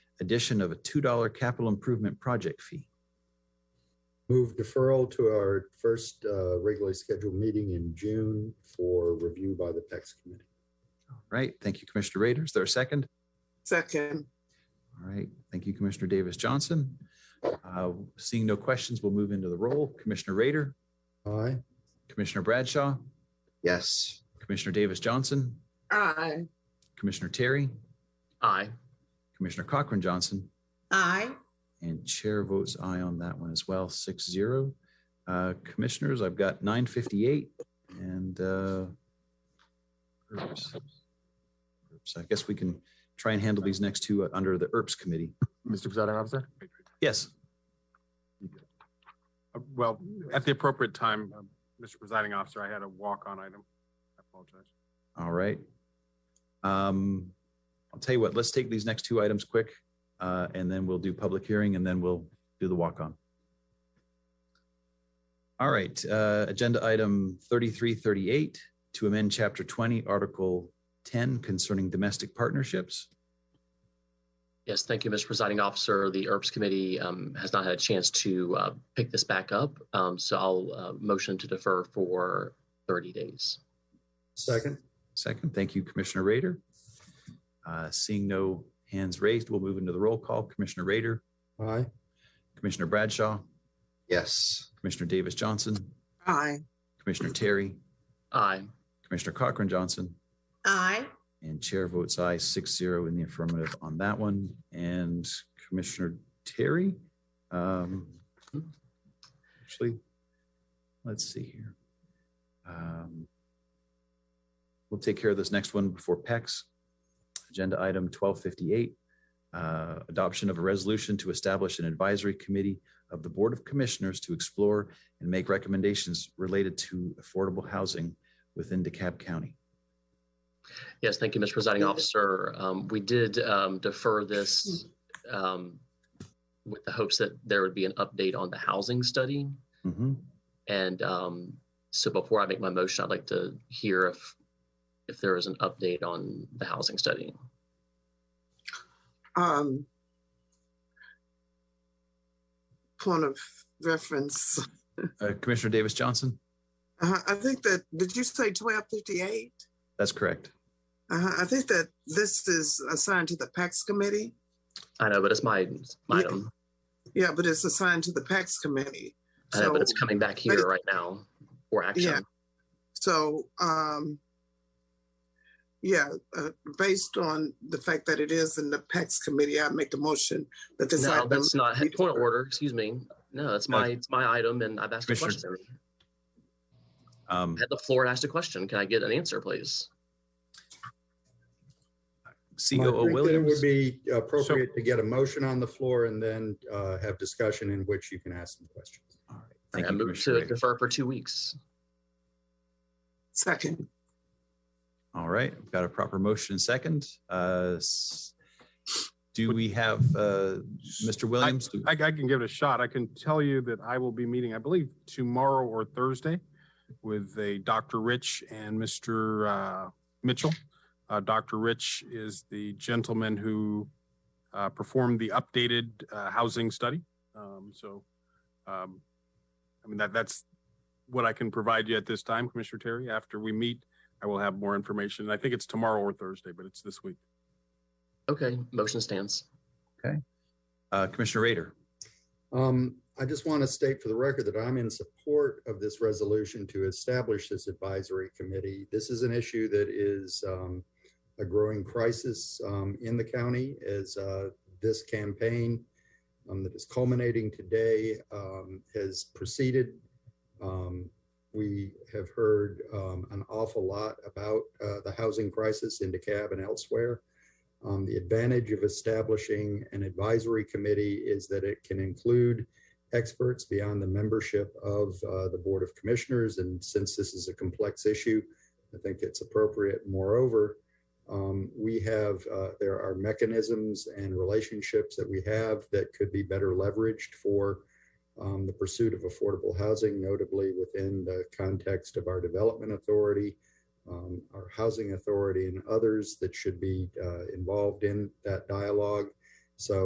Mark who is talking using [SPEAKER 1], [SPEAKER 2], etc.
[SPEAKER 1] addition of a $2 capital improvement project fee.
[SPEAKER 2] Move deferral to our first uh, regularly scheduled meeting in June for review by the PEX committee.
[SPEAKER 1] Right? Thank you, Commissioner Rader. Is there a second?
[SPEAKER 3] Second.
[SPEAKER 1] All right. Thank you, Commissioner Davis Johnson. Uh, Seeing no questions, we'll move into the roll. Commissioner Rader,
[SPEAKER 2] Aye.
[SPEAKER 1] Commissioner Bradshaw,
[SPEAKER 3] Yes.
[SPEAKER 1] Commissioner Davis Johnson,
[SPEAKER 3] Aye.
[SPEAKER 1] Commissioner Terry,
[SPEAKER 4] Aye.
[SPEAKER 1] Commissioner Cochran Johnson,
[SPEAKER 5] Aye.
[SPEAKER 1] And chair votes aye on that one as well, six zero. Uh, Commissioners, I've got nine fifty-eight and uh, ERPS. ERPS, I guess we can try and handle these next two uh, under the ERPS committee.
[SPEAKER 4] Mr. Presiding Officer?
[SPEAKER 1] Yes,
[SPEAKER 6] Uh, Well, at the appropriate time, um, Mr. Presiding Officer, I had a walk-on item. I apologize.
[SPEAKER 1] all right. Um, I'll tell you what, let's take these next two items quick uh, and then we'll do public hearing and then we'll do the walk-on. All right, uh, agenda item thirty-three thirty-eight to amend chapter twenty, article ten concerning domestic partnerships.
[SPEAKER 4] Yes, thank you, Mr. Presiding Officer. The E ERPS Committee um, has not had a chance to uh, pick this back up, um, so I'll uh, motion to defer for 30 days.
[SPEAKER 2] Second?
[SPEAKER 1] Second, thank you, Commissioner Raider. Uh, seeing no hands raised, we'll move into the roll call. Commissioner Raider,
[SPEAKER 2] Aye.
[SPEAKER 1] Commissioner Bradshaw,
[SPEAKER 3] Yes.
[SPEAKER 1] Commissioner Davis Johnson,
[SPEAKER 3] Aye.
[SPEAKER 1] Commissioner Terry,
[SPEAKER 4] Aye.
[SPEAKER 1] Commissioner Cochran Johnson,
[SPEAKER 5] Aye.
[SPEAKER 1] And chair votes aye, six zero in the affirmative on that one. And Commissioner Terry? um, Actually, let's see here. Um, We'll take care of this next one before PEX. Agenda item twelve fifty-eight. uh, Adoption of a resolution to establish an advisory committee of the Board of Commissioners to explore and make recommendations related to affordable housing within DeKalb County.
[SPEAKER 4] Yes, thank you, Mr. Presiding Officer. Um, We did um, defer this um, with the hopes that there would be an update on the housing study.
[SPEAKER 1] Mhm.
[SPEAKER 4] And um, so before I make my motion, I'd like to hear if, if there is an update on the housing study.
[SPEAKER 3] Um, point of reference.
[SPEAKER 1] Uh, Commissioner Davis Johnson?
[SPEAKER 3] Uh, I think that, did you say twelve fifty-eight?
[SPEAKER 1] That's correct.
[SPEAKER 3] Uh, I think that this is assigned to the PAX committee.
[SPEAKER 4] I know, but it's my, my
[SPEAKER 3] Yeah.
[SPEAKER 4] item.
[SPEAKER 3] Yeah, but it's assigned to the PAX committee.
[SPEAKER 4] I know, Uh, but it's
[SPEAKER 3] So-
[SPEAKER 4] coming back here right now for action.
[SPEAKER 3] Yeah. So, um, yeah, uh, based on the fact that it is in the PAX committee, I make the motion that this
[SPEAKER 4] No,
[SPEAKER 3] item.
[SPEAKER 4] that's not,
[SPEAKER 3] we
[SPEAKER 4] point of
[SPEAKER 3] defer.
[SPEAKER 4] order, excuse me. No, that's
[SPEAKER 1] No.
[SPEAKER 4] my, it's my item and I've asked a
[SPEAKER 1] Commissioner-
[SPEAKER 4] question.
[SPEAKER 1] Um,
[SPEAKER 4] I had the floor and asked a question. Can I get an answer, please?
[SPEAKER 1] COO
[SPEAKER 2] I think that It would
[SPEAKER 1] Williams.
[SPEAKER 2] be appropriate to get a motion on the floor and then uh, have discussion in which you can ask some questions.
[SPEAKER 1] All right. Thank
[SPEAKER 4] I
[SPEAKER 1] you,
[SPEAKER 4] move
[SPEAKER 1] Commissioner.
[SPEAKER 4] to
[SPEAKER 1] Rader.
[SPEAKER 4] defer for two weeks.
[SPEAKER 3] Second,
[SPEAKER 1] All right, we've got a proper motion and second. Uh, s- Do we have uh, Mr. Williams? Do-
[SPEAKER 6] I, I can give it a shot. I can tell you that I will be meeting, I believe, tomorrow or Thursday with a Dr. Rich and Mr. uh, Mitchell. Uh, Dr. Rich is the gentleman who uh, performed the updated uh, housing study. Um, So, um, I mean, that, that's what I can provide you at this time, Commissioner Terry. After we meet, I will have more information. I think it's tomorrow or Thursday, but it's this week.
[SPEAKER 4] Okay, motion stands.
[SPEAKER 1] uh, Commissioner Rader,
[SPEAKER 2] Um, I just want to state for the record that I'm in support of this resolution to establish this advisory committee. This is an issue that is um, a growing crisis um, in the county as uh, this campaign um, that is culminating today um, has proceeded. Um, we have heard um, an awful lot about uh, the housing crisis in DeKalb and elsewhere. Um, the advantage of establishing an advisory committee is that it can include experts beyond the membership of uh, the Board of Commissioners. And since this is a complex issue, I think it's appropriate. Moreover, um, we have, uh, there are mechanisms and relationships that we have that could be better leveraged for um, the pursuit of affordable housing, notably within the context of our development authority um, our housing authority and others that should be uh, involved in that dialogue.